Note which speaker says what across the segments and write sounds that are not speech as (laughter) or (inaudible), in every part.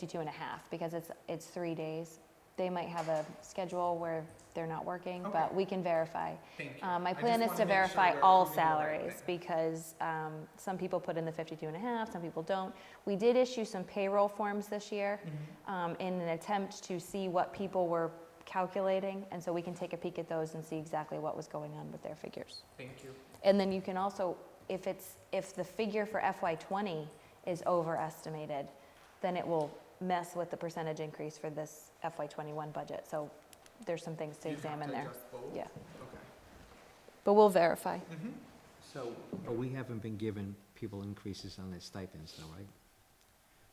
Speaker 1: to two and a half because it's, it's three days. They might have a schedule where they're not working, but
Speaker 2: Okay.
Speaker 1: we can verify.
Speaker 2: Thank you.
Speaker 1: Uh, My
Speaker 2: I just
Speaker 1: plan is to
Speaker 2: wanna make sure
Speaker 1: verify
Speaker 2: we're
Speaker 1: all
Speaker 2: doing the right
Speaker 1: salaries
Speaker 2: thing.
Speaker 1: because um, some people put in the 52 and a half, some people don't. We did issue some payroll forms this year
Speaker 2: Mm-hmm.
Speaker 1: um, in an attempt to see what people were calculating. And so we can take a peek at those and see exactly what was going on with their figures.
Speaker 2: Thank you.
Speaker 1: And then you can also, if it's, if the figure for FY '20 is overestimated, then it will mess with the percentage increase for this FY '21 budget. So there's some things to
Speaker 2: You have
Speaker 1: examine
Speaker 2: to
Speaker 1: there.
Speaker 2: adjust both?
Speaker 1: Yeah,
Speaker 2: Okay.
Speaker 1: but we'll verify.
Speaker 2: Mhm.
Speaker 3: So, but we haven't been giving people increases on their stipends though, right?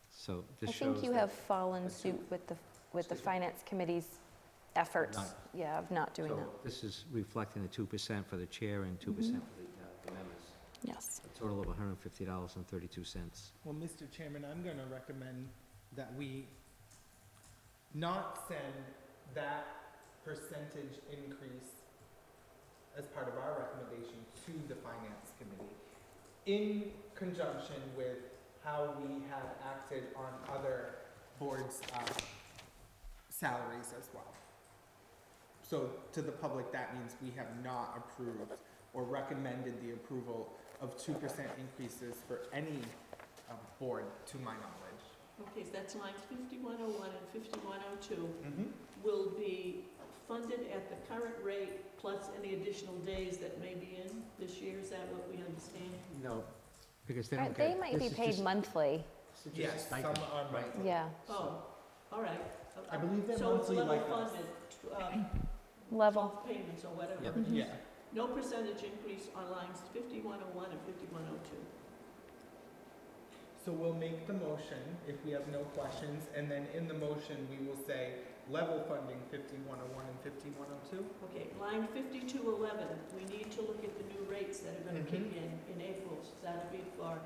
Speaker 3: So
Speaker 1: I
Speaker 3: this shows.
Speaker 1: think you
Speaker 3: that-
Speaker 1: have fallen
Speaker 3: Let's see.
Speaker 1: suit with the, with the
Speaker 3: Excuse me.
Speaker 1: finance committee's efforts,
Speaker 3: Not-
Speaker 1: yeah, of not doing
Speaker 3: so
Speaker 1: that,
Speaker 3: This is reflecting the two percent for the chair and two
Speaker 1: Mm-hmm.
Speaker 3: percent for the, uh, the members.
Speaker 1: yes.
Speaker 3: A total of hundred and fifty dollars and thirty-two cents.
Speaker 2: Well, Mr. Chairman, I'm going to recommend that we not send that percentage increase as part of our recommendation to the Finance Committee in conjunction with how we have acted on other boards' uh, salaries as well. So to the public, that means we have not approved or recommended the approval of two percent increases for any uh, board, to my knowledge.
Speaker 4: Okay, so that's lines fifty-one oh one and fifty-one oh two
Speaker 2: Mm-hmm.
Speaker 4: will be funded at the current rate plus any additional days that may be in this year, is that what we understand?
Speaker 3: No. Because they
Speaker 1: Right,
Speaker 3: don't
Speaker 1: They
Speaker 3: get.
Speaker 1: might
Speaker 3: this
Speaker 1: be
Speaker 3: is
Speaker 1: paid
Speaker 3: just-
Speaker 1: monthly,
Speaker 3: this is just a
Speaker 2: Yes, some
Speaker 3: stipend,
Speaker 2: are
Speaker 3: right?
Speaker 2: monthly.
Speaker 1: yeah,
Speaker 4: Oh, all right.
Speaker 2: I believe they're
Speaker 4: So it's
Speaker 2: monthly
Speaker 4: level
Speaker 2: like us.
Speaker 4: funded, tw- uh,
Speaker 1: level,
Speaker 4: twelve payments or
Speaker 3: Yep.
Speaker 4: whatever.
Speaker 1: Mhm.
Speaker 2: Yeah,
Speaker 4: No percentage increase on lines fifty-one oh one and fifty-one oh two.
Speaker 2: so we'll make the motion if we have no questions, and then in the motion, we will say level funding fifty-one oh one and fifty-one oh two.
Speaker 4: Okay, line fifty-two eleven, we need to look at the new rates that are gonna kick in in April, so that'll be for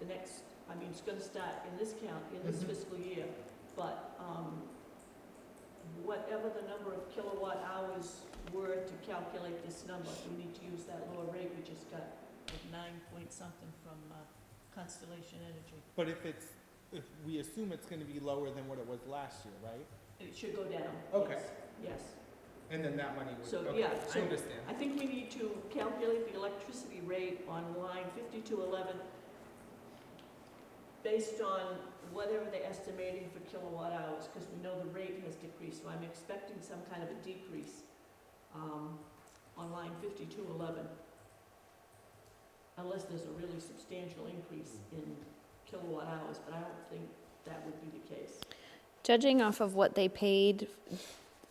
Speaker 4: the next, I mean, it's gonna start in this count, in this
Speaker 2: Mhm.
Speaker 4: fiscal year, but, um, whatever the number of kilowatt hours were to calculate this number, we need to use that lower rate we just got of nine point something from uh, Constellation Energy.
Speaker 2: But if it's, if we assume it's gonna be lower than what it was last year, right?
Speaker 4: It should go down.
Speaker 2: Okay.
Speaker 4: yes, Yes.
Speaker 2: And then that money would,
Speaker 4: So,
Speaker 2: okay,
Speaker 4: yeah,
Speaker 2: I
Speaker 4: so
Speaker 2: understand.
Speaker 4: I think we need to calculate the electricity rate on line fifty-two eleven based on whatever they're estimating for kilowatt hours, because we know the rate has decreased, so I'm expecting some kind of a decrease, um, on line fifty-two eleven. Unless there's a really substantial increase in kilowatt hours, but I don't think that would be the case.
Speaker 1: judging off of what they paid,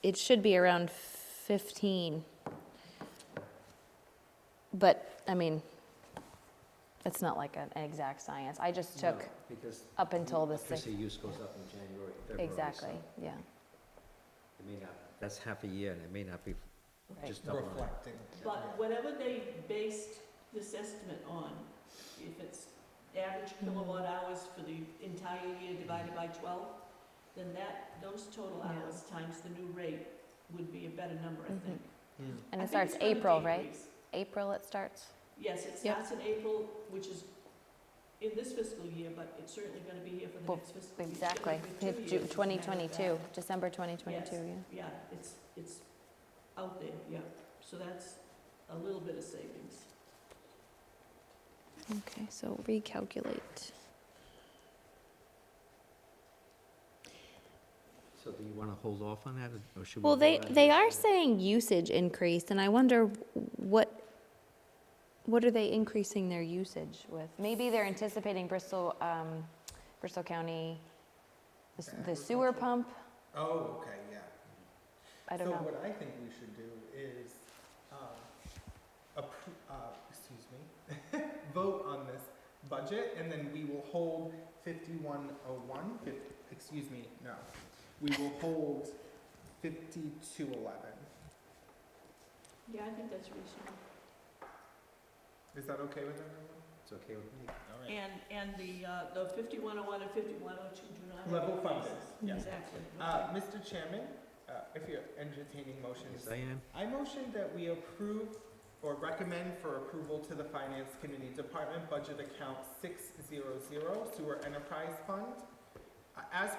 Speaker 1: it should be around fifteen. But, I mean, it's not like an an exact science, I just
Speaker 3: No,
Speaker 1: took
Speaker 3: Because
Speaker 1: up until the sixth,
Speaker 3: electricity use goes up in January, February. so
Speaker 1: exactly, yeah,
Speaker 3: It may not, that's half a year and it may not be
Speaker 1: right.
Speaker 3: just double. that.
Speaker 2: Reflecting.
Speaker 4: But whatever they based this estimate on, if it's average
Speaker 1: Mm-hmm.
Speaker 4: kilowatt hours for the entire year divided by twelve, then that, those total
Speaker 1: Yeah. Mm-hmm.
Speaker 4: hours times the new rate would be a better number, I think.
Speaker 2: Hmm.
Speaker 1: And
Speaker 4: I
Speaker 1: it
Speaker 4: think
Speaker 1: starts
Speaker 4: it's gonna
Speaker 1: April, right?
Speaker 4: decrease.
Speaker 1: April it starts?
Speaker 4: Yes, it
Speaker 1: Yep.
Speaker 4: starts in April, which is in this fiscal year, but it's certainly gonna be here for the
Speaker 1: Well,
Speaker 4: next fiscal year. It's gonna
Speaker 1: Exactly,
Speaker 4: be two years, as a matter
Speaker 1: twenty
Speaker 4: of
Speaker 1: twenty-two,
Speaker 4: fact.
Speaker 1: December twenty twenty-two, yeah.
Speaker 4: Yeah, it's, it's out there, yeah. So that's a little bit of savings.
Speaker 1: Okay, so recalculate.
Speaker 3: So do you want to hold off on that or- or should we?
Speaker 1: Well, they,
Speaker 3: vote on
Speaker 1: they
Speaker 3: this?
Speaker 1: are saying usage increased, and I wonder what, what are they increasing their usage with? Maybe they're anticipating Bristol, um, Bristol County, the s- the sewer
Speaker 2: Agriculture.
Speaker 1: pump,
Speaker 2: Oh, okay, yeah.
Speaker 1: I don't
Speaker 2: So
Speaker 1: know.
Speaker 2: what I think we should do is, um, appro- uh, excuse me, (laughs) vote on this budget, and then we will hold fifty-one oh one, fif- excuse me, no. We will hold fifty-two eleven.
Speaker 4: Yeah, I think that's reasonable.
Speaker 2: Is that okay with everyone?
Speaker 3: It's okay with me.
Speaker 2: All
Speaker 4: And, and the, uh, the fifty-one oh one and fifty-one oh two do not have.
Speaker 2: Level funded,
Speaker 4: increases.
Speaker 2: yes.
Speaker 4: Exactly.
Speaker 2: Uh,
Speaker 4: okay.
Speaker 2: Mr. Chairman, uh, if you're entertaining motions,
Speaker 3: Yes, I am.
Speaker 2: I motion that we approve or recommend for approval to the Finance Committee Department Budget Account 600 Sewer Enterprise Fund a- as